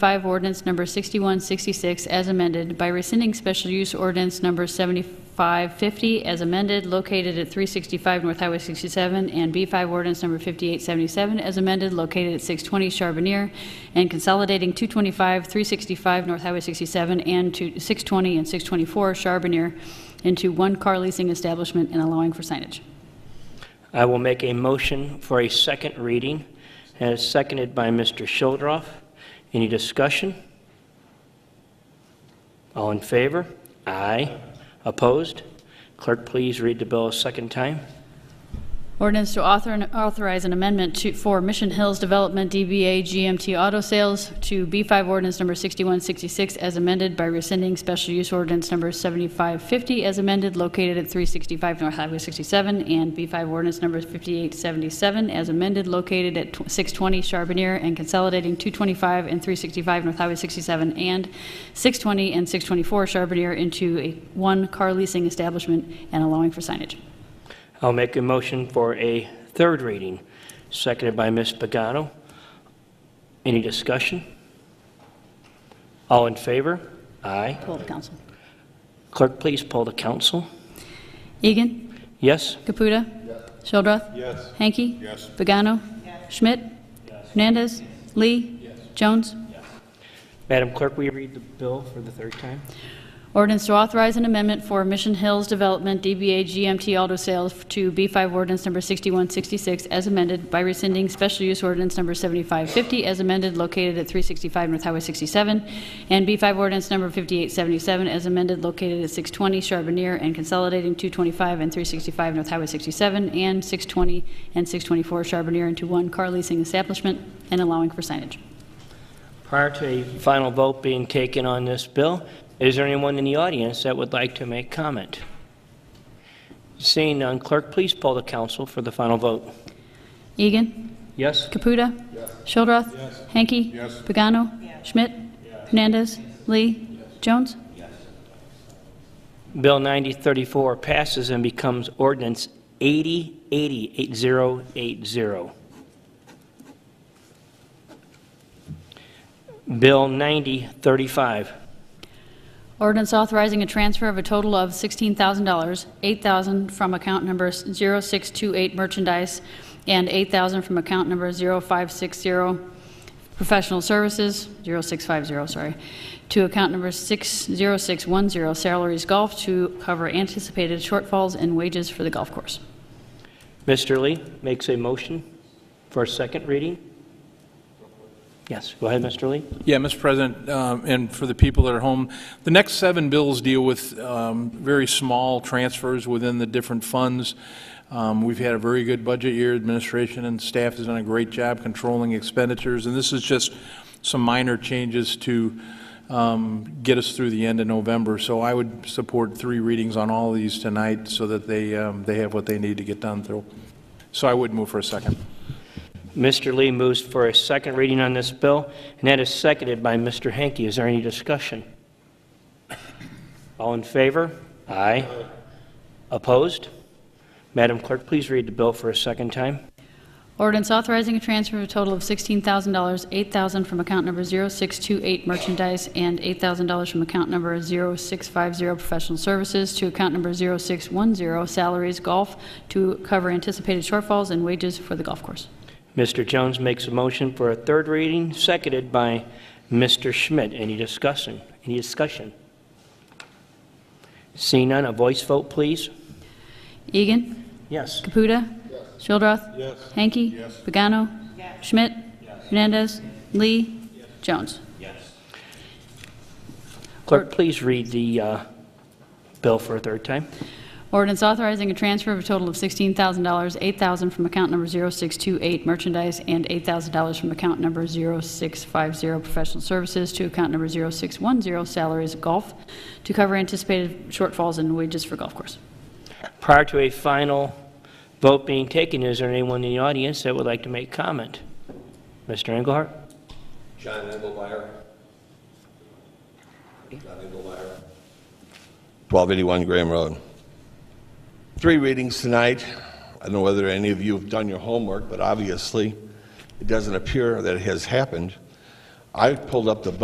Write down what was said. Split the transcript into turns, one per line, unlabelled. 5, ordinance number 6166 as amended by rescinding special use ordinance number 7550 as amended located at 365 North Highway 67, and B5 ordinance number 5877 as amended located at 620 Charbonneir, and consolidating 225, 365 North Highway 67, and to 620 and 624 Charbonneir into one car leasing establishment and allowing for signage.
I will make a motion for a second reading, and it's seconded by Mr. Shildroff. Any discussion? All in favor? Aye. Opposed? Clerk, please read the bill a second time.
Ordinance to author- authorize an amendment to, for Mission Hills Development DBA GMT Auto Sales to B5 ordinance number 6166 as amended by rescinding special use ordinance number 7550 as amended located at 365 North Highway 67 and B5 ordinance number 5877 as amended located at tw- 620 Charbonneir and consolidating 225 and 365 North Highway 67 and 620 and 624 Charbonneir into a one car leasing establishment and allowing for signage.
I'll make a motion for a third reading, seconded by Ms. Pagano. Any discussion? All in favor? Aye.
Poll the council.
Clerk, please poll the council.
Egan.
Yes?
Caputa. Shildroth. Yes. Hanky. Yes. Pagano. Schmidt. Hernandez. Lee. Jones.
Madam Clerk, will you read the bill for the third time?
Ordinance to authorize an amendment for Mission Hills Development DBA GMT Auto Sales to B5 ordinance number 6166 as amended by rescinding special use ordinance number 7550 as amended located at 365 North Highway 67 and B5 ordinance number 5877 as amended located at 620 Charbonneir and consolidating 225 and 365 North Highway 67 and 620 and 624 Charbonneir into one car leasing establishment and allowing for signage.
Prior to a final vote being taken on this bill, is there anyone in the audience that would like to make comment? Seeing none, clerk, please poll the council for the final vote.
Egan?
Yes?
Caputa. Shildroth. Hanky. Pagano. Schmidt. Hernandez. Lee. Jones.
Bill 9034 passes and becomes ordinance 8080, 8080. Bill 9035.
Ordinance authorizing a transfer of a total of $16,000, $8,000 from account number 0628 merchandise, and $8,000 from account number 0560 professional services, 0650, sorry, to account number 60610 salaries golf to cover anticipated shortfalls in wages for the golf course.
Mr. Lee makes a motion for a second reading. Yes, go ahead, Mr. Lee.
Yeah, Mr. President, um, and for the people that are home, the next seven bills deal with um, very small transfers within the different funds. Um, We've had a very good budget year, administration and staff has done a great job controlling expenditures, and this is just some minor changes to um, get us through the end of November. So I would support three readings on all of these tonight so that they, um, they have what they need to get done through. So I would move for a second.
Mr. Lee moves for a second reading on this bill, and that is seconded by Mr. Hanky. Is there any discussion? All in favor? Aye. Opposed? Madam Clerk, please read the bill for a second time.
Ordinance authorizing a transfer of a total of $16,000, $8,000 from account number 0628 merchandise and $8,000 from account number 0650 professional services to account number 0610 salaries golf to cover anticipated shortfalls in wages for the golf course.
Mr. Jones makes a motion for a third reading, seconded by Mr. Schmidt. Any discussion? Any discussion? Seeing none, a voice vote, please.
Egan.
Yes.
Caputa. Shildroth. Hanky. Pagano. Schmidt. Hernandez. Lee. Jones.
Clerk, please read the uh, bill for a third time.
Ordinance authorizing a transfer of a total of $16,000, $8,000 from account number 0628 merchandise and $8,000 from account number 0650 professional services to account number 0610 salaries golf to cover anticipated shortfalls in wages for golf course.
Prior to a final vote being taken, is there anyone in the audience that would like to make comment? Mr. Engelhardt?
John Engelmeyer. John Engelmeyer. 1281 Graham Road. Three readings tonight. I don't know whether any of you have done your homework, but obviously, it doesn't appear that it has happened. I pulled up the